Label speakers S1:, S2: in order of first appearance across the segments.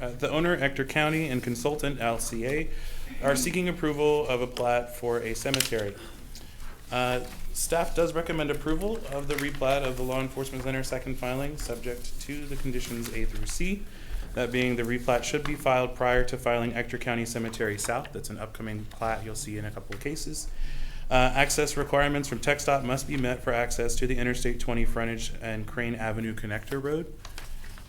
S1: Uh, The owner, Ector County, and consultant, LCA, are seeking approval of a plat for a cemetery. Uh, Staff does recommend approval of the replat of the Law Enforcement Center second filing, subject to the conditions A through C. That being, the replat should be filed prior to filing Ector County Cemetery South. That's an upcoming plat you'll see in a couple of cases. Uh, Access requirements from Tech Dot must be met for access to the Interstate 20 frontage and Crane Avenue Connector Road.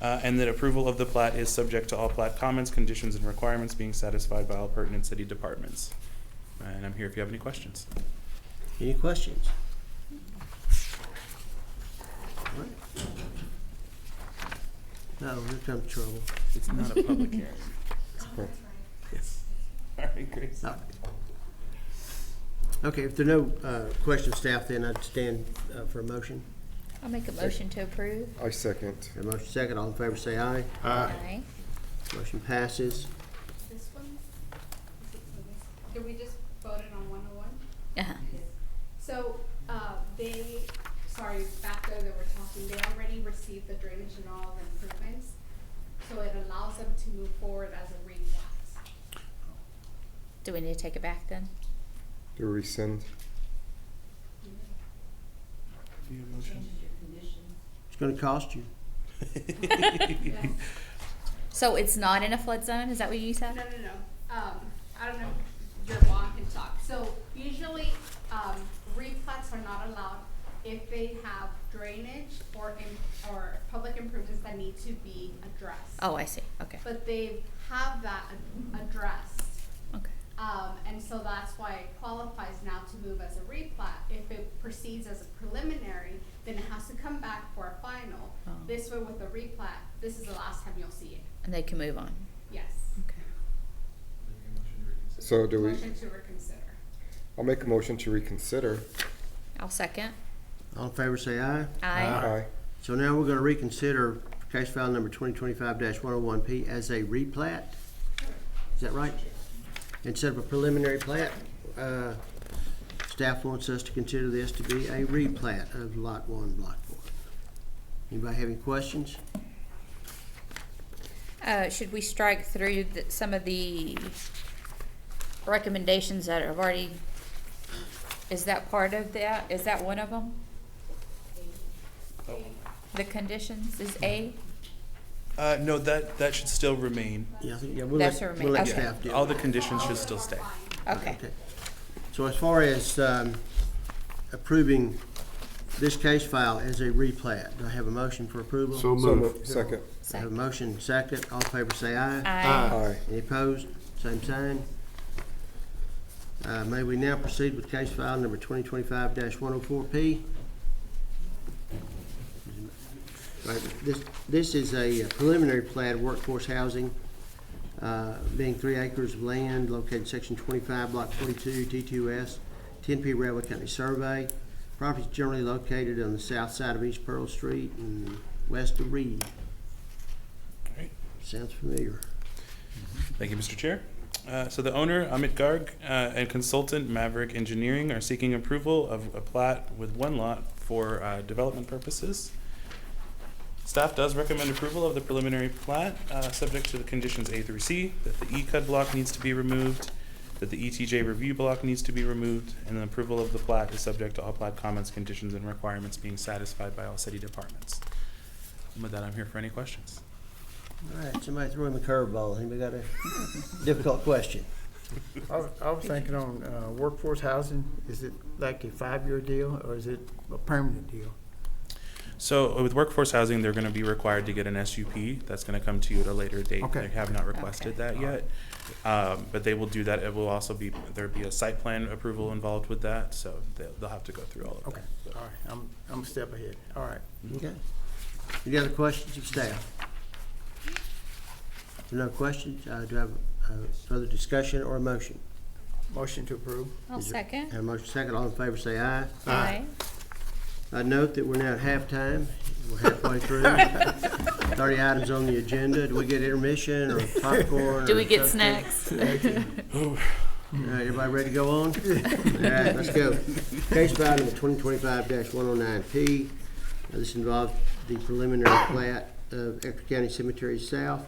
S1: Uh, And that approval of the plat is subject to all plat comments, conditions, and requirements being satisfied by all pertinent city departments. And I'm here if you have any questions.
S2: Any questions? All right. No, here comes trouble.
S1: It's not a public hearing. Yes. All right, Grace.
S2: All right. Okay, if there are no uh, questions, staff, then I'd stand uh, for a motion.
S3: I'll make a motion to approve.
S4: I second.
S2: A motion second, all in favor say aye.
S3: Aye.
S2: Motion passes.
S5: This one? Is it for this? Did we just voted on one oh one?
S3: Uh-huh.
S5: So, uh, they, sorry, back there that we're talking, they already received the drainage and all the improvements. So it allows them to move forward as a replat.
S3: Do we need to take it back then?
S4: To rescind.
S1: Do you have a motion?
S2: It's gonna cost you.
S3: So it's not in a flood zone, is that what you
S5: No,
S3: said?
S5: no, no, um, I don't know, if your mom can talk. So usually, um, replats are not allowed if they have drainage or im- or public improvements that need to be addressed.
S3: Oh, I see, okay,
S5: But they have that ad- addressed,
S3: okay.
S5: um, and so that's why it qualifies now to move as a replat. If it proceeds as a preliminary, then it has to come back for a final.
S3: Oh.
S5: This way with a replat, this is the last time you'll see it,
S3: And they can move on,
S5: yes.
S3: okay.
S4: So do we,
S5: Motion to reconsider.
S4: I'll make a motion to reconsider.
S3: I'll second.
S2: All in favor say aye.
S3: Aye.
S4: Aye.
S2: So now we're gonna reconsider case file number twenty twenty-five one oh one P as a replat. Is that right? Instead of a preliminary plat, uh, staff wants us to consider this to be a replat of lot one, block one. Anybody have any questions?
S3: Uh, should we strike through the, some of the recommendations that have already, is that part of that? Is that one of them? The conditions is A?
S1: Uh, no, that, that should still remain.
S2: Yeah, I think- yeah, we'll
S3: That's
S2: let,
S3: a remain-
S2: we'll let
S3: okay.
S2: staff do it.
S1: All the conditions should still stay.
S3: Okay,
S2: Okay. So as far as um, approving this case file as a replat, do I have a motion for approval?
S6: So
S4: So
S6: moved.
S4: moved.
S2: I
S4: Second.
S2: have a
S3: second.
S2: motion, second, all in favor say aye.
S3: Aye.
S4: Aye.
S2: Any opposed? Same sign. Uh, May we now proceed with case file number twenty twenty-five one oh four P? This, this is a preliminary plat of workforce housing, uh, being three acres of land located in section twenty-five, block forty-two, T two S, ten P Railway Company Survey. Property is generally located on the south side of East Pearl Street and west of Reed.
S1: right.
S2: Sounds familiar.
S1: Thank you, Mr. Chair. Uh, So the owner, Amit Garg, uh, and consultant Maverick Engineering are seeking approval of a plat with one lot for uh, development purposes. Staff does recommend approval of the preliminary plat, uh, subject to the conditions A through C, that the E-Cud block needs to be removed, that the ETJ review block needs to be removed, and the approval of the plat is subject to all plat comments, conditions, and requirements being satisfied by all city departments. And with that, I'm here for any questions.
S2: All right, somebody throw him a curveball. Anybody got a difficult question?
S7: I was, I was thinking on uh, workforce housing, is it like a five-year deal or is it a permanent deal?
S1: So uh, with workforce housing, they're gonna be required to get an SUP. That's gonna come to you at a later date.
S7: Okay.
S1: They have not requested that yet. Um, but they will do that. It will also be, there'd be a site plan approval involved with that, so they'll, they'll have to go through all of
S7: Okay,
S1: that.
S7: all right, I'm, I'm a step ahead, all right.
S2: Okay. Any other questions of staff? If No questions? Uh, do I have uh, further discussion or a motion?
S7: Motion to approve.
S3: I'll
S2: Is it-
S3: second.
S2: Have a motion second. All in favor say aye.
S3: Aye.
S2: I note that we're now at halftime. We're halfway through. Thirty items on the agenda. Do we get intermission or popcorn?
S3: Do
S2: or
S3: we get
S2: something?
S3: snacks?
S2: All right, everybody ready to go on? All right, let's go. Case file number twenty twenty-five one oh nine P. This involves the preliminary plat of Ector County Cemetery South.